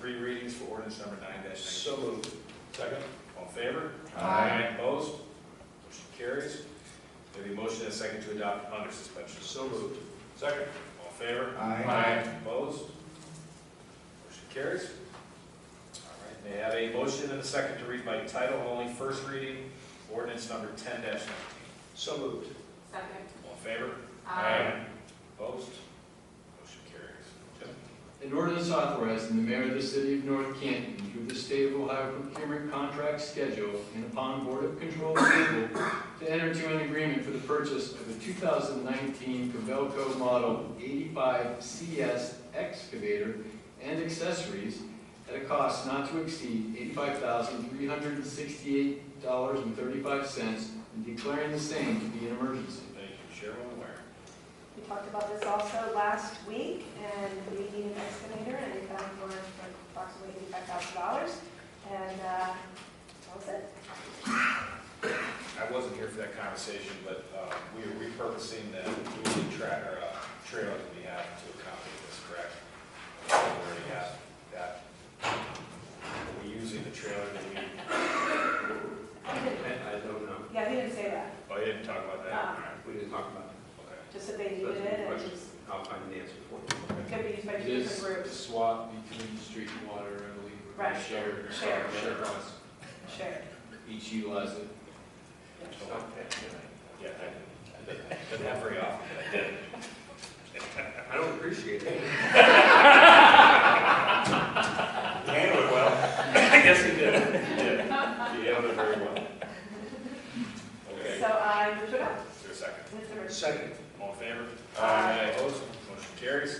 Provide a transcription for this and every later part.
three readings for ordinance number nine dash nineteen. So moved. Second? All in favor? Aye. Opposed? Motion carries. May I have a motion and a second to adopt under suspension? So moved. Second. All in favor? Aye. Opposed? Motion carries. All right, may I have a motion and a second to read by title only, first reading, ordinance number ten nineteen? So moved. Second. All in favor? Um, Aye. Opposed? Motion carries. Jim? An ordinance authorizing the mayor of the city of North Canton through the state of Ohio procurement contract schedule and upon Board of Control approval to enter to an agreement for the purchase of a 2019 Cabelco Model 85 CS excavator and accessories at a cost not to exceed $85,368.35 and declaring the same to be an emergency. Thank you, Chairman Ware. We talked about this also last week, and we need an excavator, and we found one for approximately eighty-five thousand dollars, and, uh, that was it. I wasn't here for that conversation, but uh, we are repurposing that moving track, or uh, trailer that we have to accommodate this, correct? We already have that. Are we using the trailer that we, He I, didn't- I don't know. Yeah, he didn't say that, oh, you didn't talk about that? Ah. All right, We didn't talk about it. okay. just that they That's a needed it, good and question. it was- I'll find an answer for you. it could be used by It two is different a groups, swap between street and water, I believe. or Right. Shared. Shared. Shared costs. shared. Each utilize it. So, Yeah, I did. I didn't have very often, but I did. I don't appreciate it. You handled it well. I guess you did. You did. You handled it very well. Okay, is So uh, I moved it up, there a second? Mr. Richards. Second? All in favor? Aye. Opposed? Motion carries. Is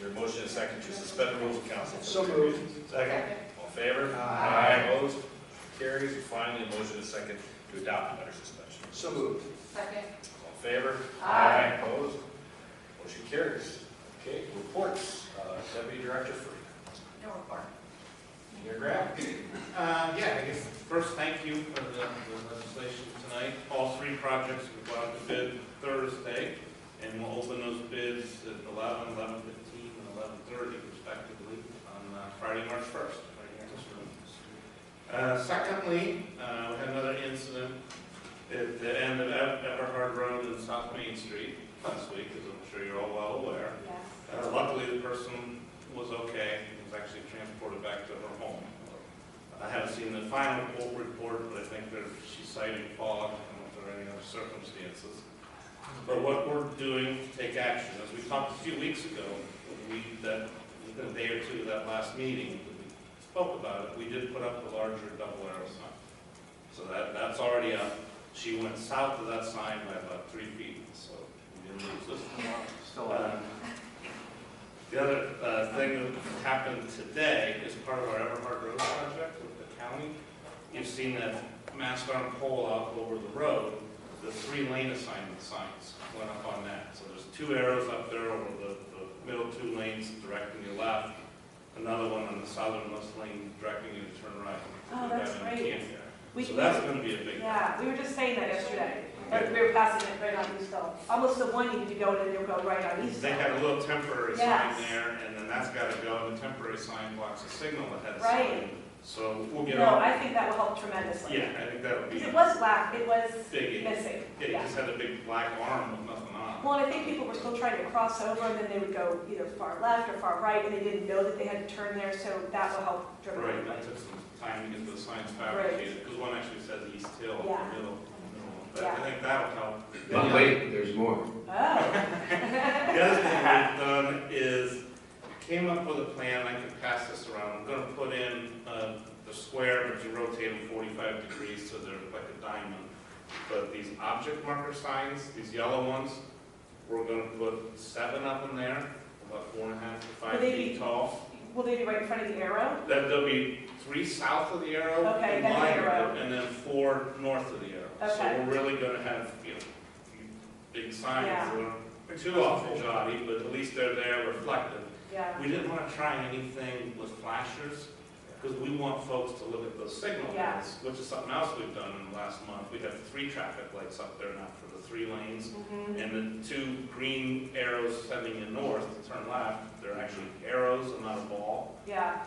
there a motion and a second to suspend the rules of council? for So three moved. readings? Second. All in favor? Aye. Opposed? Motion Carries. And finally, a motion and a second to adopt under suspension. So moved. Second. All in favor? Aye. Opposed? Motion carries. Okay, reports. Uh, Deputy Director Freeman. No report. Mayor Graham. Uh, yeah, I guess first, thank you for the the legislation tonight. All three projects will go out to bid Thursday, and we'll open those bids at 11, 11:15, and 11:30 respectively on uh, Friday, March 1st. right here in this room. Uh, Secondly, uh, we had another incident at the end of Ev- Everhard Road and South Main Street last week, as I'm sure you're all well aware. Yes. Uh, Luckily, the person was okay, and was actually transported back to her home. I haven't seen the final full report, but I think there, she's citing fog and if there are any other circumstances. But what we're doing to take action, as we talked a few weeks ago, we, that, within a day or two of that last meeting, we spoke about it, we did put up the larger double arrow sign. So that, that's already up. She went south of that sign by about three feet, so we didn't lose this. Still out. Uh, The other uh, thing that happened today is part of our Everhard Road project with the county. You've seen that mast iron pole out over the road, the three lane assignment signs went up on that. So there's two arrows up there over the, the middle two lanes directing you left, another one on the southernmost lane directing you to turn right. Oh, that's Down in great. Canada. We- So that's gonna be a big. Yeah, we were just saying that yesterday, Like, we were passing it right on Eastville, almost the one you need to go to, they'll go right on They Eastville. had a little temporary sign Yes. there, and then that's gotta go, and the temporary sign blocks the signal that has. Right. So we'll get No, on, I think that will help tremendously. yeah, I think that would be Because it a was black, it was big, yeah, missing, it yeah. just had a big black arm with nothing on. Well, and I think people were still trying to cross over, and then they would go either far left or far right, and they didn't know that they had to turn there, so that will help Right, that dramatically. took some time to get the signs Right. fabricated, because one actually says East Hill in the Yeah. middle. But Yeah. I think that'll help. But wait, there's more. Oh, The other thing we've done is, came up with a plan, I can pass this around, I'm gonna put in, uh, the square, but you rotate them forty-five degrees, so they're like a diamond. But these object marker signs, these yellow ones, we're gonna put seven of them there, about four and a half to five Will they feet be- tall. Oh. will they be right in front of the arrow? Then there'll be three south of the arrow, Okay, and that's the line, arrow. and then four north of the arrow. Okay. So we're really gonna have, you know, big signs, Yeah. we're too awful jolly, but at least they're there reflective. Yeah, We didn't want to try anything with flashers, because we want folks to look at those signal Yeah. lights, which is something else we've done in the last month. We have three traffic lights up there now for the three lanes, mhm, and the two green arrows sending you north to turn left, they're actually arrows and not a ball. yeah.